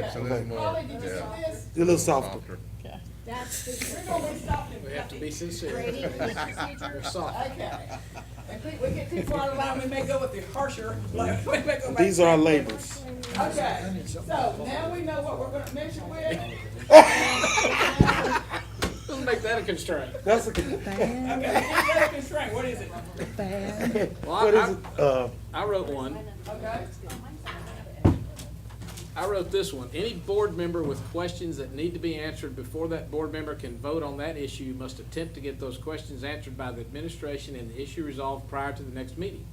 Yeah. So there's more. Holly, did you yeah, see this? A little softer. Okay. That's, the- we're gonna be stopping. We have to be sincere. Brady, They're soft. Okay. If we, we get too far around, we may go with the harsher, like, we may go back. These are our labels. Okay, so now we know what we're gonna measure with. Let's make that a constraint. That's a, good- Okay, that's a constraint, what is it? Well, what is I, it? Uh, I I wrote one. Okay, I wrote this one. Any board member with questions that need to be answered before that board member can vote on that issue must attempt to get those questions answered by the administration and the issue resolved prior to the next meeting.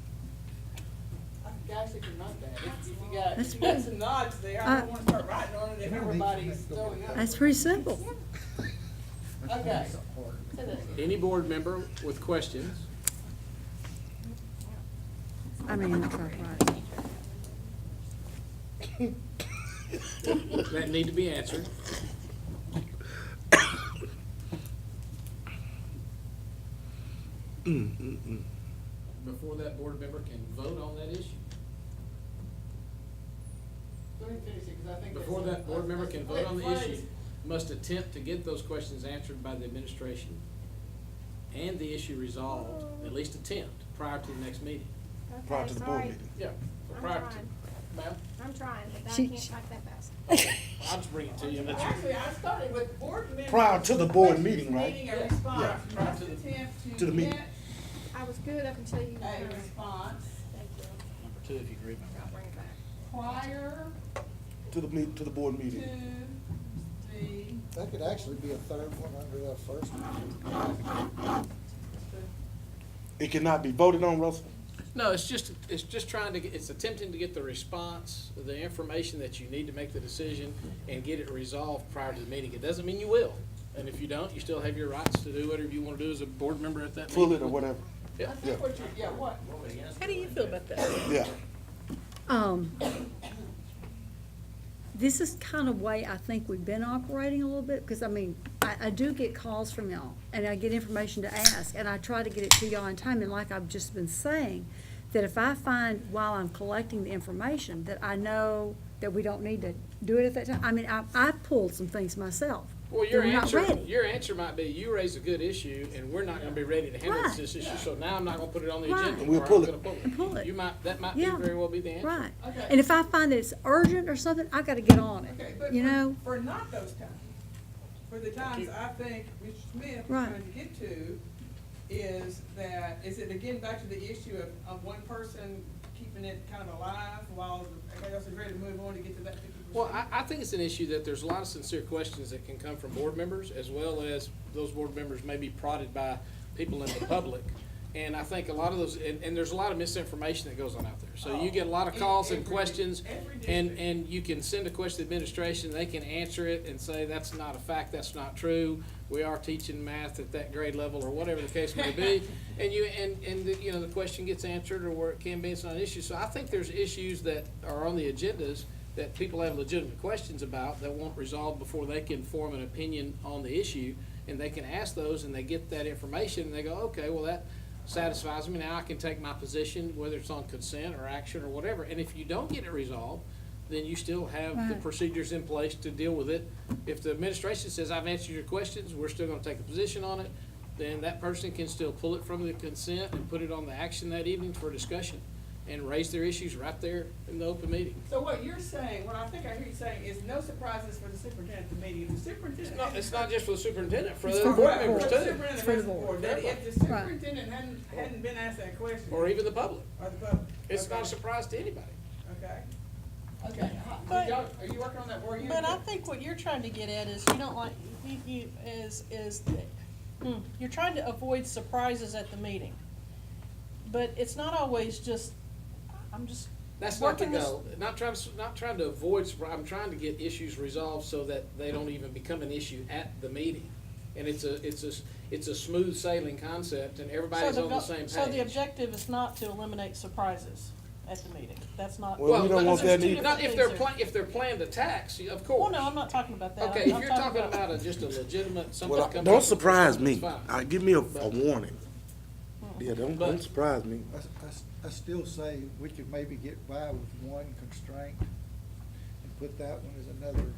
guys, if you're not that, if if you got, if you got some nods there, Uh, I don't wanna start writing on it if everybody's throwing up. That's pretty simple. Okay. Any board member with questions I mean, that's all right. that need to be answered before that board member can vote on that issue. Let me finish it, 'cause I think that's Before a- that board member can a vote on the split issue, phrase. must attempt to get those questions answered by the administration and the issue resolved, at least attempt, prior to the next meeting. prior to the board meeting. Yeah. I'm Prior trying. to, ma'am, I'm trying, but I She- can't she- type that fast. I'll just bring it to you. and let you- Actually, I started with board members. Prior to the board meeting, right? Meeting a response, Yeah. must attempt To to the meeting. get I was good up until you. a response Thank you. Number two, if you agree, ma'am. I'll bring it back. prior To the meet, to the board to meeting. the That could actually be a third one under that first one. It cannot be voted on, Russell? No, it's just, it's just trying to, get it's attempting to get the response, the information that you need to make the decision and get it resolved prior to the meeting. It doesn't mean you will. And if you don't, you still have your rights to do whatever you want to do as a board member at that Pull meeting. it or whatever. I think what you're, yeah, what? How do you feel about that? Yeah. Um, this is kind of way I think we've been operating a little bit, because I mean, I, I do get calls from y'all, and I get information to ask, and I try to get it to y'all in time, and like I've just been saying, that if I find while I'm collecting the information, that I know that we don't need to do it at that time, I mean, I, I pulled some things myself. Well, that your were not answer, ready. your answer might be, you raise a good issue, and we're not gonna be ready to handle Right. this issue, so now I'm not gonna put it on the Right. agenda. And we'll or I'm pull it. gonna And pull it. You might, that might be Yeah. very well be the answer. Right, Okay. and if I find that it's urgent or something, I gotta get on Okay, it, but you for- know? For not those times, for the times I think Mr. Smith is Right. trying to get to, is that, is it again back to the issue of, of one person keeping it kind of alive while everybody else is ready to move on to get to that fifty percent? Well, I, I think it's an issue that there's a lot of sincere questions that can come from board members, as well as those board members may be prodded by people in the public. And I think a lot of those, and, and there's a lot of misinformation that goes on out there. So you get a lot of Oh, in calls and every- questions, every and, district. and you can send a question to the administration, they can answer it and say, that's not a fact, that's not true. We are teaching math at that grade level, or whatever the case may be. And you, and, and, the- you know, the question gets answered, or where it can be, it's not an issue. So I think there's issues that are on the agendas that people have legitimate questions about that won't resolve before they can form an opinion on the issue. And they can ask those, and they get that information, and they go, okay, well, that satisfies me, now I can take my position, whether it's on consent or action or whatever. And if you don't get it resolved, then you still have the Right. procedures in place to deal with it. If the administration says, I've answered your questions, we're still gonna take a position on it, then that person can still pull it from the consent and put it on the action that evening for discussion and raise their issues right there in the open meeting. So what you're saying, what I think I hear you saying is no surprises for the superintendent at the meeting, the superintendent. It's not, it's not just for the superintendent, for the It's other for board Right, members for the too, superintendent It's for the and the board. board, that if the Right. superintendent hadn't, hadn't been asked that question. or even the public. Or the public. It's not a Okay. surprise to anybody. Okay. Okay, how- But- y'all- are you working on that board? You- But I think what you're trying to get at is you don't like, you, you, is, is, that- hmm, you're trying to avoid surprises at the meeting. But it's not always just, I'm just. That's not the working this- goal. Not trying, to s- not trying to avoid, surpri- I'm trying to get issues resolved so that they don't even become an issue at the meeting. And it's a, it's a, s- it's a smooth sailing concept and So everybody's the on the go- same So the page. objective is not to eliminate surprises at the meeting. That's not. Well, we don't but- want that There's two either. Not if different things they're there. plan, if they're planned attacks, y- of Well, course. no, I'm not talking about that. Okay, I'm- if I'm you're talking about a, just a legitimate, something Well, comes up. don't with surprise something, me. it's fine. Uh, give me a, a warning. Yeah, don't, don't But- surprise me. I, s- I s- I still say we could maybe get by with one constraint and put that one as another